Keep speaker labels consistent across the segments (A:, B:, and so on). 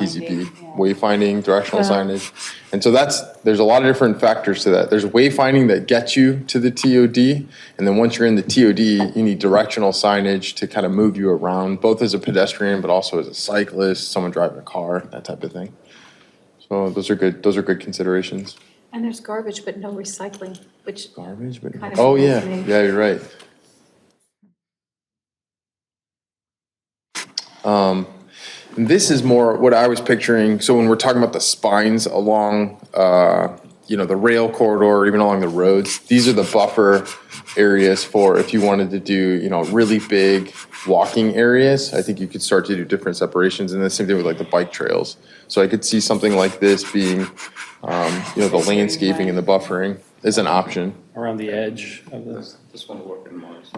A: PCP, wayfinding, directional signage. And so that's, there's a lot of different factors to that. There's wayfinding that gets you to the TOD, and then once you're in the TOD, you need directional signage to kind of move you around, both as a pedestrian, but also as a cyclist, someone driving a car, that type of thing. So those are good, those are good considerations.
B: And there's garbage, but no recycling, which,
A: Garbage, but,
B: Kind of
A: oh, yeah,
B: fascinating.
A: yeah, you're right. Um, and This is more what I was picturing, so when we're talking about the spines along, uh, you know, the rail corridor, even along the roads, these are the buffer areas for if you wanted to do, you know, really big walking areas, I think you could start to do different separations, and the same thing with like the bike trails. So I could see something like this being, um, you know, the landscaping and the buffering is an option.
C: around the edge of this.
D: This one will work in Mars.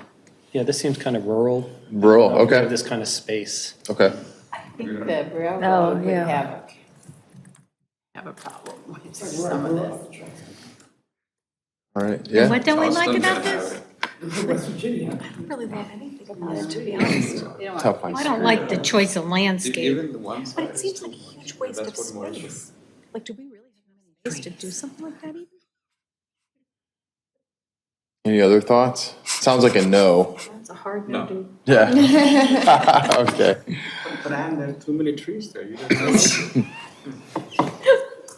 C: Yeah, this seems kind of rural.
A: Rural,
C: Uh, we
A: okay.
C: have This kind of space.
A: Okay.
E: I think the railroad would
F: yeah.
E: have a, have a problem with some of this.
A: All right. Yeah.
F: What don't we like
D: Charleston,
F: about
D: yeah.
F: this?
B: I don't really love anything about it, to be honest.
E: You know,
A: Tough
F: I
A: ones.
F: don't like the choice of landscape.
D: Even the one side.
B: But it seems like a huge waste of
D: That's what Mars is.
B: space. Like, do we really have space to do something like that even?
A: Any other thoughts? Sounds like a no.
B: That's a hard no
D: No.
B: to.
A: Yeah. okay.
D: But and there are too many trees there, you don't know.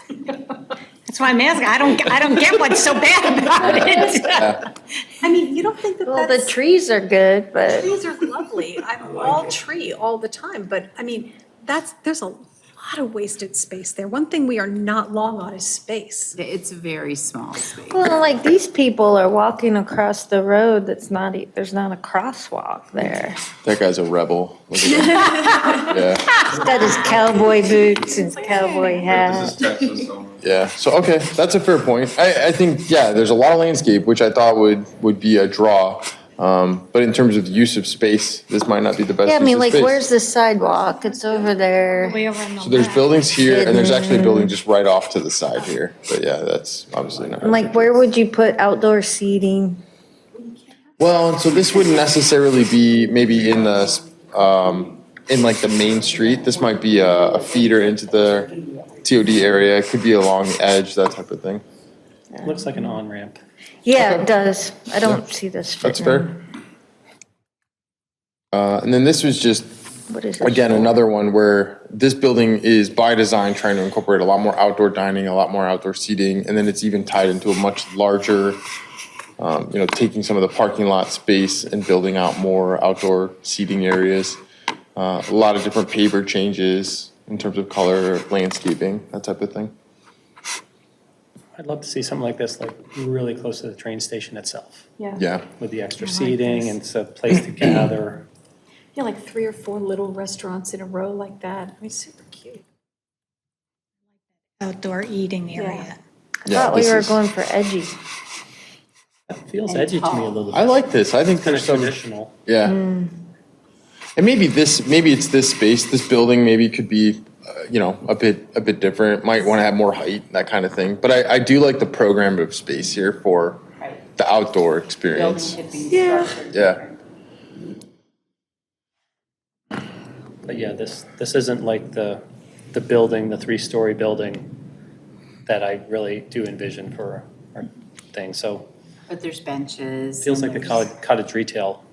F: That's why I'm asking, I don't, I don't get what's so bad about it.
B: I mean, you don't think that
G: Well, the
B: that's,
G: trees are good, but
B: trees are lovely. I'm all tree all the time, but I mean, that's, there's a lot of wasted space there. One thing we are not long on is space.
E: It's a very small space.
G: well, like these people are walking across the road that's not, e- there's not a crosswalk there.
A: That guy's a rebel. Look at that.
G: He's got his cowboy boots and cowboy
D: This
G: hat.
D: is Texas, so.
A: yeah. Yeah. So okay, that's a fair point. I, I think yeah, there's a lot of landscape which I thought would would be a draw. Um, but in terms of use of space, this might not be the best.
G: Yeah, I
A: use
G: mean,
A: of
G: like,
A: space.
G: where's the sidewalk? It's over there.
F: Way over on the
A: So there's
F: left.
A: buildings here, and there's actually a
G: Mm.
A: building just right off to the side here. But yeah, that's obviously not.
G: And like, where would you put outdoor seating?
A: Well, and so this wouldn't necessarily be maybe in the, um, in like the main street. This might be a a feeder into the TOD area. It could be along the edge, that type of thing.
C: Looks like an on-ramp.
G: Yeah, it does. I don't see this
A: That's
G: fitting.
A: fair. Uh, and then this was just,
G: What is this?
A: again, another one where this building is by design trying to incorporate a lot more outdoor dining, a lot more outdoor seating, and then it's even tied into a much larger, um, you know, taking some of the parking lot space and building out more outdoor seating areas. Uh, a lot of different paver changes in terms of color, landscaping, that type of thing.
C: I'd love to see something like this, like really close to the train station itself,
A: Yeah.
C: with the extra seating and it's a place to gather.
B: Yeah, like three or four little restaurants in a row like that. I mean, super cute.
F: Outdoor eating area.
G: I thought we were going for edgy.
C: That feels
E: And
C: edgy to me a
E: tall.
C: little bit.
A: I like this. I think
C: Kind of
A: there's some.
C: traditional.
A: Yeah.
E: Hmm.
A: And maybe this, maybe it's this space, this building, maybe could be, uh, you know, a bit, a bit different. Might want to have more height, that kind of thing. But I, I do like the program of space here for
E: Right.
A: the outdoor
E: Building
A: experience.
E: could be structured.
A: Yeah.
C: But yeah, this, this isn't like the, the building, the three-story building that I really do envision for our thing. So
E: But there's benches.
C: feels
E: and
C: like the
E: there's-
C: cottage, cottage retail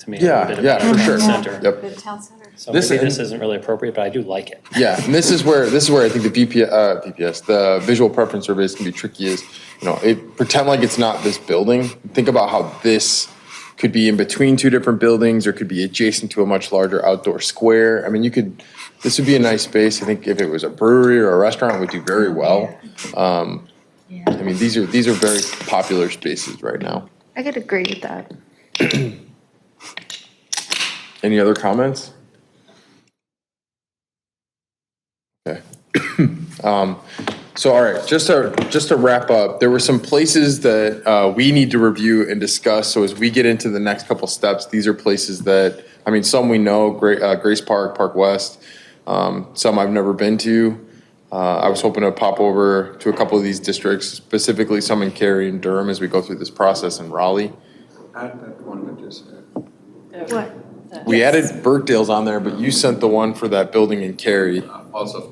C: to me. a
A: Yeah,
C: bit of a
A: yeah, for
C: town
A: sure.
C: Center.
A: Yep.
B: The town center.
C: So
A: This-
C: maybe this isn't really appropriate, but I do like it.
A: Yeah, and this is where this is where I think the VP, uh, VPS, the visual preference surveys can be tricky. Is you know, it, pretend like it's not this building. Think about how this could be in between two different buildings, or could be adjacent to a much larger outdoor square. I mean, you could. This would be a nice space. I think if it was a brewery or a restaurant, it would do very well. Um, I mean, these are these are very popular spaces right now.
G: I could agree with that.
A: Any other comments? Okay. Um, So, all right, just to, just to wrap up, there were some places that uh, we need to review and discuss. So as we get into the next couple steps, these are places that, I mean, some we know, Gra- uh, Grace Park, Park West, um, some I've never been to. Uh, I was hoping to pop over to a couple of these districts, specifically some in Cary and Durham as we go through this process in Raleigh.
D: Add that one that uh, you said.
G: What?
A: We added Burkdale's on there, but you sent the one for that building in Cary.
D: Uh, Also